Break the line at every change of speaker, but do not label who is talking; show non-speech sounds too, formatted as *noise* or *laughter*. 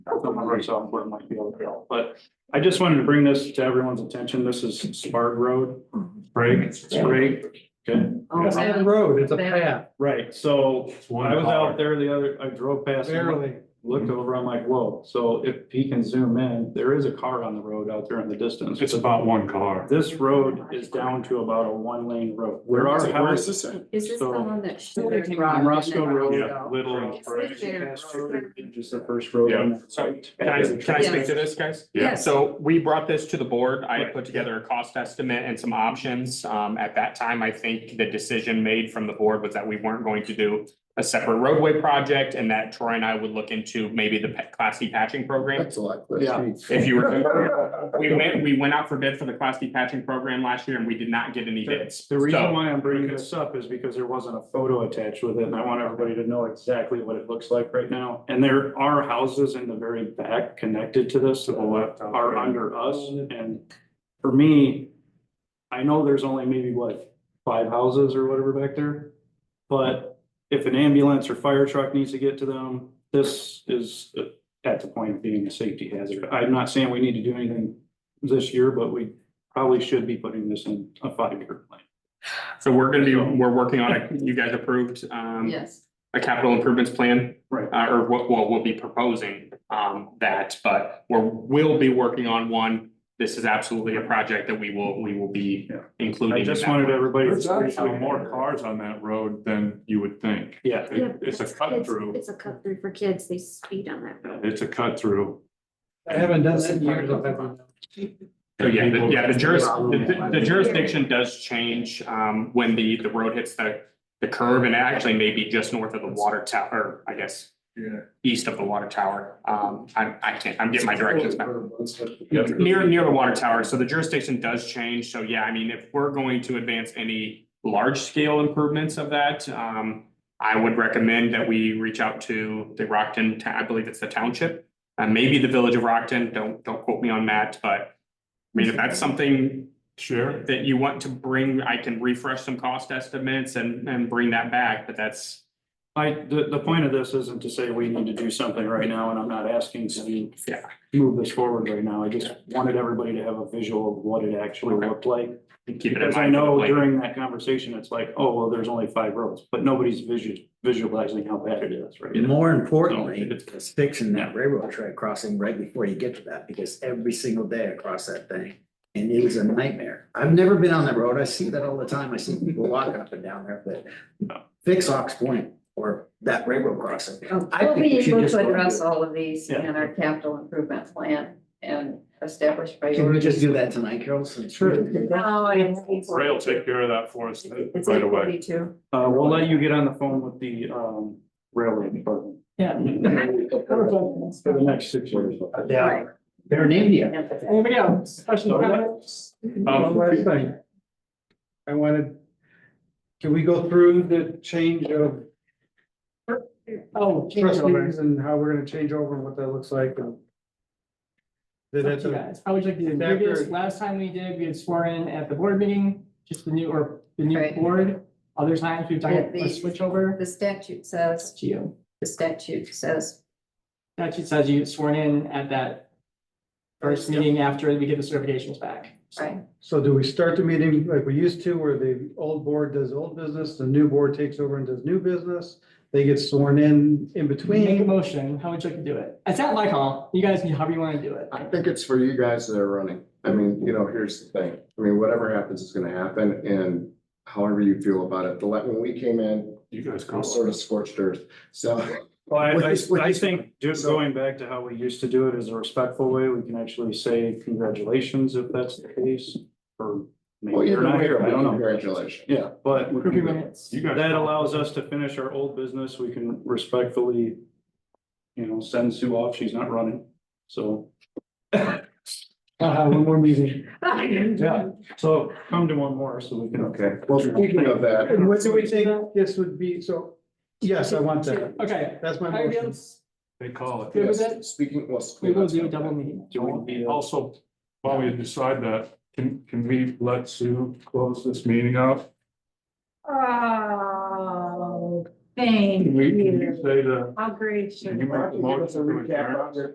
someone very software might be able to help. But I just wanted to bring this to everyone's attention. This is Spark Road. Sprague, Sprague, good,
Oh,
It's not a
man.
road, it's a
Bad.
path,
right, so I was out there the other, I drove past. and
barely.
Looked over, I'm like, whoa, so if he can zoom in, there is a car on the road out there in the distance.
It's about one car.
This road is down to about a one lane road. There are houses.
this at?
Is this the
So-
one that?
On Roscoe Road.
Yeah, Little and
It's
Sprague.
there.
Just the first road on that site.
Can I, can I speak
Yes.
to this, guys?
Yes.
So we brought this to the board. I
Right.
put together a cost estimate and some options. Um, at that time, I think the decision made from the board was that we weren't going to do a separate roadway project and that Troy and I would look into maybe the pa- Class D patching program.
That's a lot.
Yeah.
If you *laughs* remember, we went, we went out for bid for the Class D patching program last year and we did not get any bids.
The reason
So-
why I'm bringing this up is because there wasn't a photo attached with it, and I want everybody to know exactly what it looks like right now. And there are houses in the very back connected to this, to the left, are under us, and for me, I know there's only maybe what, five houses or whatever back there? But if an ambulance or fire truck needs to get to them, this is uh, at the point of being a safety hazard. I'm not saying we need to do anything this year, but we probably should be putting this in a five-year plan.
So we're gonna be, we're working on it. You guys approved, um,
Yes.
a capital improvements plan.
Right.
Uh, or what, what we'll be proposing, um, that, but we're, we'll be working on one. This is absolutely a project that we will, we will be
Yeah.
including.
I
in
just
that
wanted
one.
everybody
There's actually
to.
more cars on that road than you would think.
Yeah,
It- It's a cut through,
It's a cut through for kids. They speed on that road.
it's a cut through.
I haven't done that in years. I've never-
So yeah, the- yeah, the juris, the the jurisdiction does change, um, when the, the road hits the, the curve and actually maybe just north of the water tower, I guess.
Yeah.
East of the water tower. Um, I, I can't, I'm getting my directions back. Near, near the water tower, so the jurisdiction does change, so yeah, I mean, if we're going to advance any large scale improvements of that, um. I would recommend that we reach out to the Rockton, ta- I believe it's the township, uh, maybe the village of Rockton, don't, don't quote me on that, but. I mean, if that's something
Sure.
that you want to bring, I can refresh some cost estimates and, and bring that back, but that's.
I, the, the point of this isn't to say we need to do something right now, and I'm not asking to
Yeah.
move this forward right now. I just wanted everybody to have a visual of what it actually
Okay.
looked like.
Keep it in
Because I
mind for the
know
plan.
during that conversation, it's like, oh, well, there's only five roads, but nobody's visual, visualizing how bad it is, right?
And more importantly, it's fixing that railroad track crossing right before you get to that, because every single day I cross that thing. And it was a nightmare. I've never been on that road. I see that all the time. I see people walking up and down there, but fix Ox Point or that railroad crossing. I
We'll
think
Oh, be
we should
able
just
to
go and
address
do it.
all of these
Yeah.
in our capital improvement plan and establish priorities.
Can Oh, we just do that tonight, Carol? since-
No, it's.
Ray will take care of that for us
It's
right
eight
away.
forty-two.
Uh, we'll let you get on the phone with the, um, railway
*laughs*
department
Yeah.
for the next six years.
Yeah, they're in India.
Anybody else?
One
Um,
last thing. I wanted, can we go through the change of
Oh,
trustees and how we're gonna change over and what that looks like? and- Did
Up
that-
to you guys. How would you like to do
Back
this?
or-
Last time we did, we had sworn in at the board meeting, just the new, or the new
Right.
board. Other times we've done
Yeah,
a
the-
switch over.
The statute says,
It's you.
the statute says,
Statute says you sworn in at that first meeting after we get the certifications back. So
right?
So do we start the meeting like we used to, where the old board does old business, the new board takes over and does new business? They get sworn in in
Make a
between?
motion. How would you like to do it? It's not my call. You guys, can- however you want to do it.
I think it's for you guys that are running. I mean, you know, here's the thing. I mean, whatever happens is gonna happen and however you feel about it. The, la- when we came in,
You guys
it
call.
was sort of scorched earth. So,
Well, Oh. I,
What
I,
is- what
I
is-
think just
so-
going back to how we used to do it is a respectful way. We can actually say congratulations if that's the case. Or
well,
maybe you're
you're
not here, I don't know.
Congratulations.
Yeah, but
Approve your minutes.
You guys.
that allows us to finish our old business. We can respectfully, you know, send Sue off. She's not running. So,
Uh, one more meeting.
yeah, so come to one more so we can.
Okay, well, speaking of that,
And what do we think this would be, so, yes, I want that,
Okay.
that's my
Everybody
motion.
else
They call it.
good with it? E
yes, speaking, well.
We will do a double meeting.
Do we need a-
Also, while we decide that, can, can we let Sue close this meeting out?
Oh, thank
Can we, can you
you.
say the?
How great.
Can you make the motion to adjourn?